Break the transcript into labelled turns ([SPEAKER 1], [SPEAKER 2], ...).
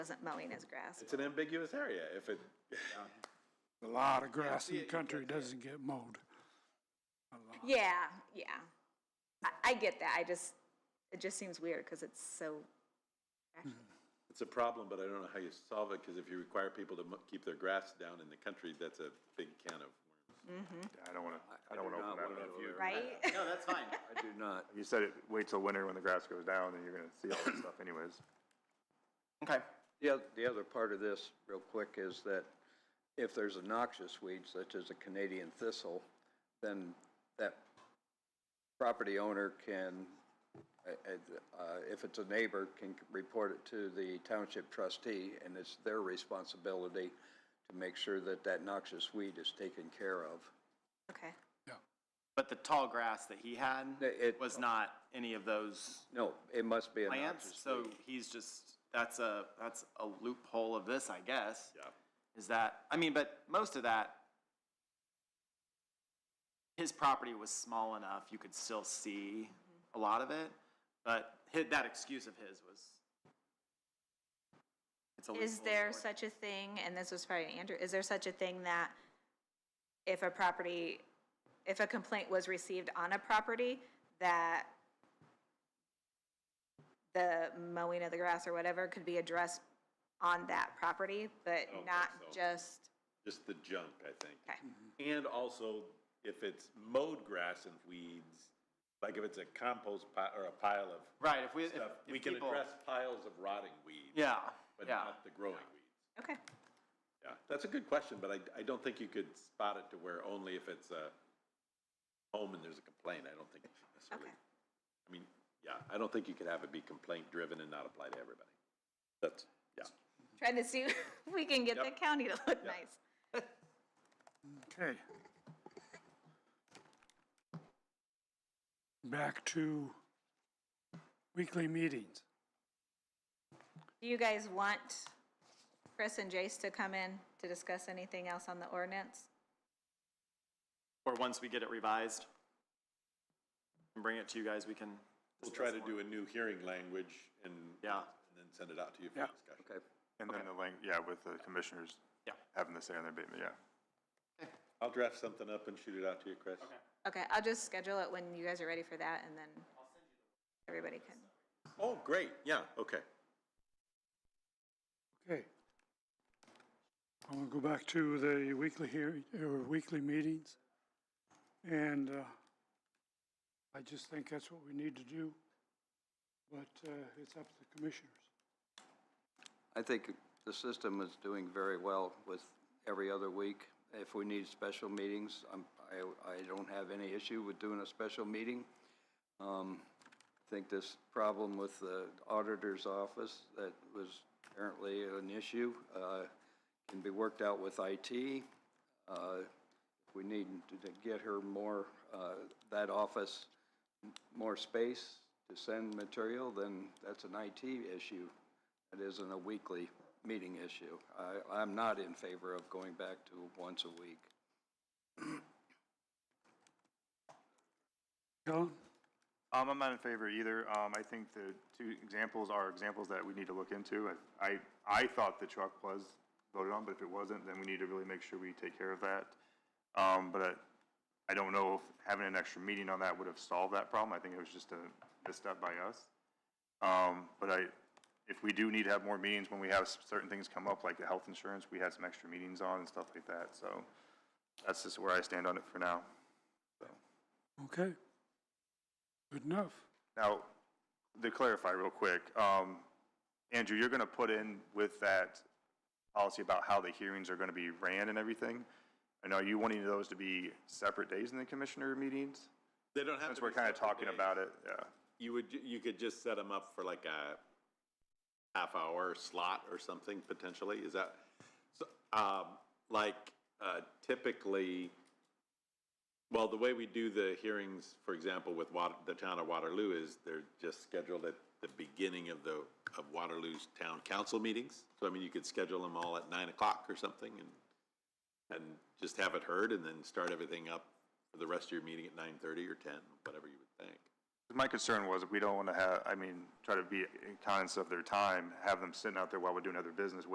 [SPEAKER 1] wasn't mowing his grass.
[SPEAKER 2] It's an ambiguous area. If it,
[SPEAKER 3] A lot of grass in
[SPEAKER 2] see
[SPEAKER 3] the
[SPEAKER 2] it, you
[SPEAKER 3] country doesn't get mowed.
[SPEAKER 1] Yeah, yeah. I, I get that. I just, it just seems weird because it's so,
[SPEAKER 2] it's a problem, but I don't know how you solve it, because if you require people to mo- keep their grass down in the country, that's a big can of worms.
[SPEAKER 4] I don't wanna, I don't wanna
[SPEAKER 5] do not
[SPEAKER 4] open that
[SPEAKER 5] wanna
[SPEAKER 4] up.
[SPEAKER 5] go there.
[SPEAKER 1] right?
[SPEAKER 5] No, that's fine. I do not.
[SPEAKER 4] You said it, wait till winter when the grass goes down and you're gonna see all that stuff anyways.
[SPEAKER 6] Okay.
[SPEAKER 5] The oth- the other part of this, real quick, is that if there's a noxious weed such as a Canadian thistle, then that property owner can, uh, uh, if it's a neighbor, can report it to the township trustee, and it's their responsibility to make sure that that noxious weed is taken care of.
[SPEAKER 1] Okay.
[SPEAKER 6] But the tall grass that he had
[SPEAKER 5] The- it-
[SPEAKER 6] was not any of those
[SPEAKER 5] No, it must be a
[SPEAKER 6] plants,
[SPEAKER 5] noxious
[SPEAKER 6] so
[SPEAKER 5] weed.
[SPEAKER 6] he's just, that's a, that's a loophole of this, I guess. Yeah. Is that, I mean, but most of that, his property was small enough, you could still see a lot of it, but hi- that excuse of his was. it's a
[SPEAKER 1] Is
[SPEAKER 6] loophole
[SPEAKER 1] there
[SPEAKER 6] or-
[SPEAKER 1] such a thing, and this was probably to Andrew, is there such a thing that if a property, if a complaint was received on a property, that the mowing of the grass or whatever could be addressed on that property, but
[SPEAKER 2] don't think
[SPEAKER 1] not
[SPEAKER 2] so.
[SPEAKER 1] just,
[SPEAKER 2] Just the junk, I think.
[SPEAKER 1] okay,
[SPEAKER 2] And also, if it's mowed grass and weeds, like if it's a compost pile or a pile of
[SPEAKER 6] Right, if we, if,
[SPEAKER 2] stuff, we
[SPEAKER 6] if
[SPEAKER 2] can
[SPEAKER 6] people.
[SPEAKER 2] address piles of rotting weeds.
[SPEAKER 6] Yeah,
[SPEAKER 2] But
[SPEAKER 6] yeah.
[SPEAKER 2] not the growing weeds.
[SPEAKER 1] okay,
[SPEAKER 2] Yeah, that's a good question, but I, I don't think you could spot it to where only if it's a home and there's a complaint, I don't think necessarily.
[SPEAKER 1] Okay.
[SPEAKER 2] I mean, yeah, I don't think you could have it be complaint driven and not apply to everybody. That's, yeah.
[SPEAKER 1] trying to see if we can get the
[SPEAKER 2] Yep.
[SPEAKER 1] county to look nice.
[SPEAKER 3] Okay. Back to weekly meetings.
[SPEAKER 1] Do you guys want Chris and Jace to come in to discuss anything else on the ordinance?
[SPEAKER 6] Or once we get it revised and bring it to you guys, we can.
[SPEAKER 2] We'll try
[SPEAKER 6] discuss
[SPEAKER 2] to
[SPEAKER 6] more.
[SPEAKER 2] do a new hearing language and.
[SPEAKER 6] Yeah.
[SPEAKER 2] And then send it out to you for
[SPEAKER 3] Yeah.
[SPEAKER 2] discussion.
[SPEAKER 5] Okay.
[SPEAKER 4] And then the lang, yeah, with the commissioners.
[SPEAKER 6] Yeah.
[SPEAKER 4] Having the say on their abatement, yeah.
[SPEAKER 2] I'll draft something up and shoot it out to you, Chris.
[SPEAKER 1] Okay, I'll just schedule it when you guys are ready for that, and then everybody can.
[SPEAKER 2] Oh, great, yeah, okay.
[SPEAKER 3] Okay. I want to go back to the weekly hearing, or weekly meetings. And uh, I just think that's what we need to do. But uh, it's up to the commissioners.
[SPEAKER 5] I think the system is doing very well with every other week. If we need special meetings, I'm, I, I don't have any issue with doing a special meeting. Um, I think this problem with the auditor's office that was apparently an issue, uh, can be worked out with IT. Uh, we need to to get her more, uh, that office m- more space to send material, then that's an IT issue. It isn't a weekly meeting issue. I, I'm not in favor of going back to once a week.
[SPEAKER 3] Helen?
[SPEAKER 4] Um, I'm not in favor either. Um, I think the two examples are examples that we need to look into. I- I, I thought the truck was voted on, but if it wasn't, then we need to really make sure we take care of that. Um, but I don't know if having an extra meeting on that would have solved that problem. I think it was just a misstep by us. Um, but I, if we do need to have more meetings when we have s- certain things come up, like the health insurance, we had some extra meetings on and stuff like that. So that's just where I stand on it for now.
[SPEAKER 3] Okay. Good enough.
[SPEAKER 4] Now, to clarify real quick, um, Andrew, you're gonna put in with that policy about how the hearings are gonna be ran and everything? And are you wanting those to be separate days in the commissioner meetings?
[SPEAKER 2] They don't have to.
[SPEAKER 4] Since we're
[SPEAKER 2] be
[SPEAKER 4] kinda
[SPEAKER 2] separate
[SPEAKER 4] talking
[SPEAKER 2] days.
[SPEAKER 4] about it, yeah.
[SPEAKER 2] You would, ju- you could just set them up for like a half hour slot or something potentially, is that? So, um, like, uh, typically, well, the way we do the hearings, for example, with Wat the town of Waterloo is they're just scheduled at the beginning of the, of Waterloo's town council meetings. So I mean, you could schedule them all at nine o'clock or something and, and just have it heard and then start everything up for the rest of your meeting at nine thirty or ten, whatever you would think.
[SPEAKER 4] My concern was if we don't want to have, I mean, try to be conscious of their time, have them sitting out there while we're doing other business,